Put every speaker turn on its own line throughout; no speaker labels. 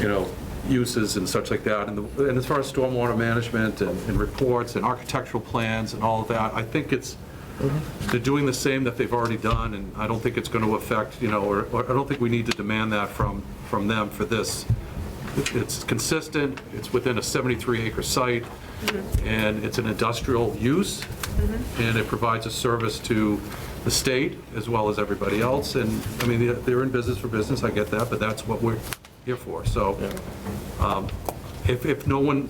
you know, uses and such like that. And the- and as far as stormwater management and and reports and architectural plans and all of that, I think it's, they're doing the same that they've already done, and I don't think it's going to affect, you know, or or I don't think we need to demand that from, from them for this. It's consistent, it's within a 73-acre site,
Mm-hmm.
and it's an industrial use, and it provides a service to the state as well as everybody else, and, I mean, they're- they're in business for business, I get that, but that's what we're here for, so um, if, if no one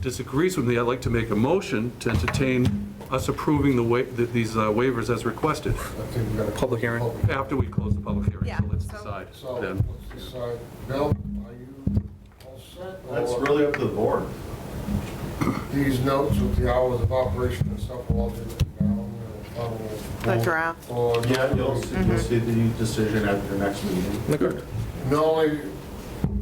disagrees with me, I'd like to make a motion to entertain us approving the wa, th- these uh, waivers as requested,
Okay, we got a
Public hearing.
after we close the public hearing,
Yeah,
so let's
so-
decide
So,
then.
let's decide, Bill, are you all set?
That's
or
really up to the board.
These notes with the hours of operation and stuff will all be written down. and I will-
The draft.
Or-
Yeah, you'll, see- you'll see the decision at your next meeting.
Good.
Mm-hmm. No, I,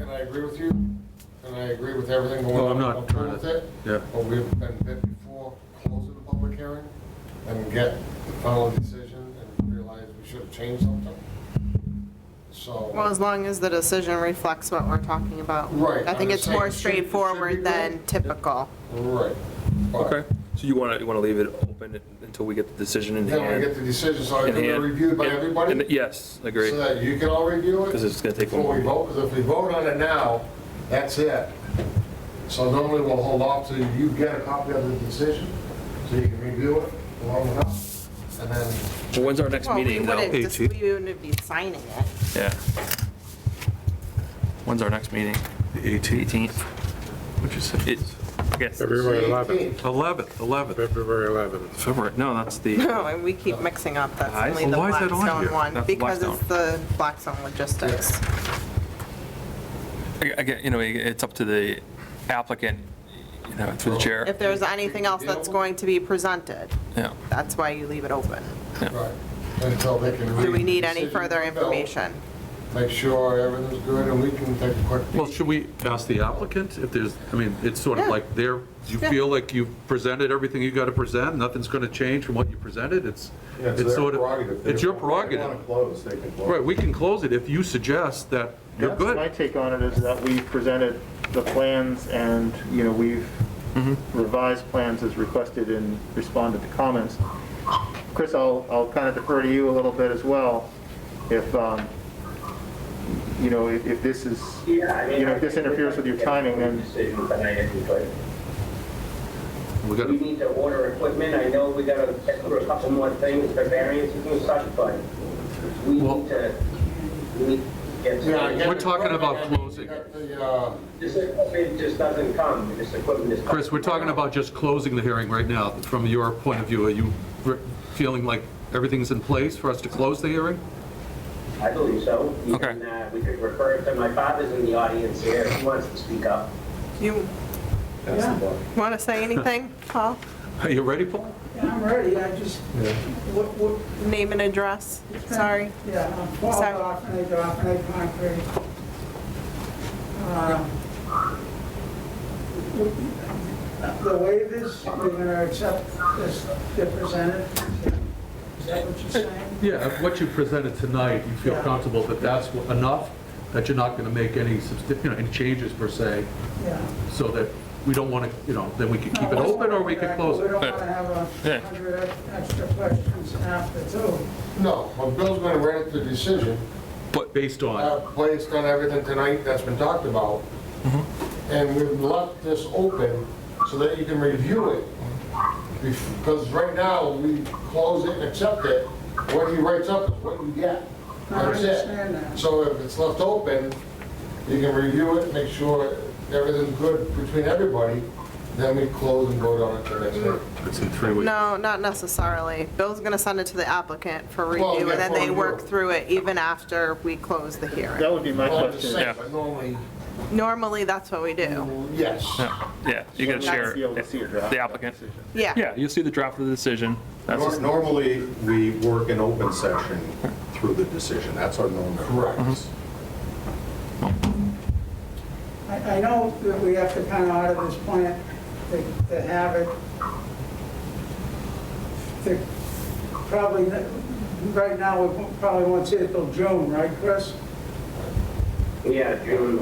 and I agree with you, and I agree with everything going on.
Well, I'm not
good
trying
with
to-
it,
yeah.
But we've been bit before, closing the public hearing, and get the final decision, and realize we should have changed something. So.
Well, as long as the decision reflects what we're talking about.
Right,
I think
I'm
it's
saying
more
it should- it should be
straightforward than
right.
typical.
Right. But
Okay, so you want to, you want to leave it open until we get the decision in hand?
Then we get the decision, so it
in
can be
hand?
reviewed by
And-
everybody?
and- Yes, agree.
So that you can all review it?
'Cause it's gonna take a
Before we
while.
vote, 'cause if we vote on it now, that's it. So normally we'll hold off till you get a copy of the decision, so you can review it along with us, and then,
Well, When's our next
Well, we
meeting,
wouldn't,
though?
dis- we wouldn't be signing it.
Yeah. When's our next meeting? Eighteenth.
What'd you say?
It, yes,
February 11th,
18th.
11th, 11th.
February 11th.
February, no, that's the,
No, and we keep mixing up, that's
Aye.
only the
Well, why is that on here?
Blackstone one,
That's
because it's
Blackstone.
the Blackstone logistics.
again, you know, it's up to the applicant, you know, through the chair.
If there's anything else that's going to be presented,
Yeah.
that's why you leave it open.
right, until they can read.
Do we need
the
any
decision
further
from Bill,
information?
Make sure everything's good, and we can take a quick.
Well, should we ask the applicant if there's, I mean, it's sort of
Yeah.
like they're, you
Yeah.
feel like you've presented everything you got to present, nothing's going to change from what you presented, it's,
Yeah,
it's
their
sort
prerogative.
of, it's your
If they
prerogative.
wanna close, they can close.
Right, we can close it if you suggest that you're
That's my
good.
take on it, is that we've presented the plans and, you know, we've revised plans as requested and responded to comments. Chris, I'll, I'll kind of defer to you a little bit as well. If, um, you know, if if this is, you know, if this interferes with your timing, then
Decision tonight if we could.
We got
We
to,
need to order equipment, I know we gotta check for a couple more things for variances and such, but we
Well-
need to, we need to get
Yeah, I get
We're
it.
talking about
I mean, you
closing.
got the, uh,
This equipment just doesn't come, this equipment is.
Chris, we're talking about just closing the hearing right now. From your point of view, are you re- feeling like everything's in place for us to close the hearing?
I believe so. You
Okay.
can, uh, We could refer it to, my father's in the audience here, if he wants to speak up.
You
That's the board.
want to say anything, Paul?
Are you ready, Paul?
Yeah, I'm ready, I just, what, what,
Name and address, sorry.
yeah, I'm Paul
Sorry.
Goffney, Goffney Concrete. Uh, The waivers, we're gonna accept as they're presented, is that what you're saying?
Yeah, if what you presented tonight, you feel
Yeah.
comfortable that that's wha- enough, that you're not going to make any, subst- you know, any changes per se,
Yeah.
so that we don't want to, you know, then we could keep it
No,
open or we could close
We
it.
don't wanna have
Yeah.
a hundred extra questions after too.
No, well, Bill's gonna write the decision,
But based
uh,
on,
based on everything tonight that's been talked about. And we've left this open so that you can review it. Because right now, we close it and accept it. What he writes up is what you get.
I
That's
understand
it.
that.
So if it's left open, you can review it, make sure everything's good between everybody, then we close and vote on it the next day.
it's in three weeks.
No, not necessarily. Bill's going to send it to the applicant for
Well,
review,
yeah,
and then
for
they
review.
work through it even after we close the hearing.
that would be my
Well, I'm just
question.
saying, but normally,
Normally, that's what we do.
yes.
Yeah, you gotta
I'd
share
be able to see a draft.
the applicant.
Yeah.
Yeah, you'll see the draft of the decision. That's
Nor-
just-
Normally, we work in open session through the decision, that's our normal.
Correct.
I, I know that we have to kind of out of this plant to, to have it, to probably, n- right now, we probably won't see it till June, right, Chris?
Yeah, June